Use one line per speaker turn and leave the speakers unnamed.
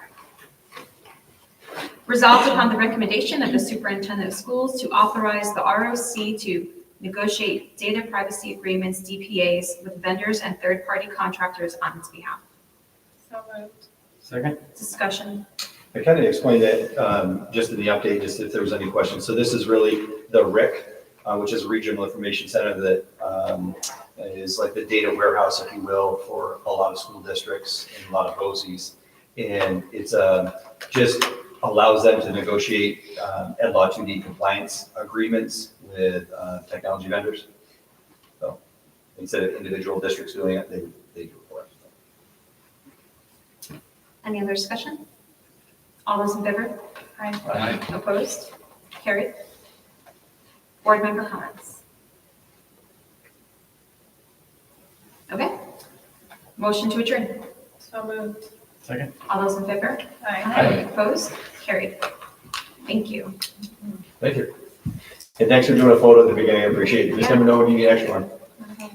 Resolved upon the recommendation of the superintendent of schools to authorize the ROC to negotiate data privacy agreements, DPAs, with vendors and third-party contractors on its behalf.
So moved.
Second?
Discussion.
I kind of explained that um, just in the update, just if there was any questions. So this is really the RIC, uh, which is Regional Information Center that um, is like the data warehouse, if you will, for a lot of school districts and a lot of BOSI's. And it's uh, just allows them to negotiate um, Ed Law 2D compliance agreements with uh, technology vendors. So instead of individual districts doing it, they, they do it for us.
Any other discussion? All those in favor? Aye.
Aye.
Opposed? Carried. Board member comments? Okay. Motion to adjourn.
So moved.
Second?
All those in favor?
Aye.
Aye.
Opposed? Carried. Thank you.
Thank you. And thanks for doing a photo at the beginning. I appreciate it. You Just never know when you get an extra one.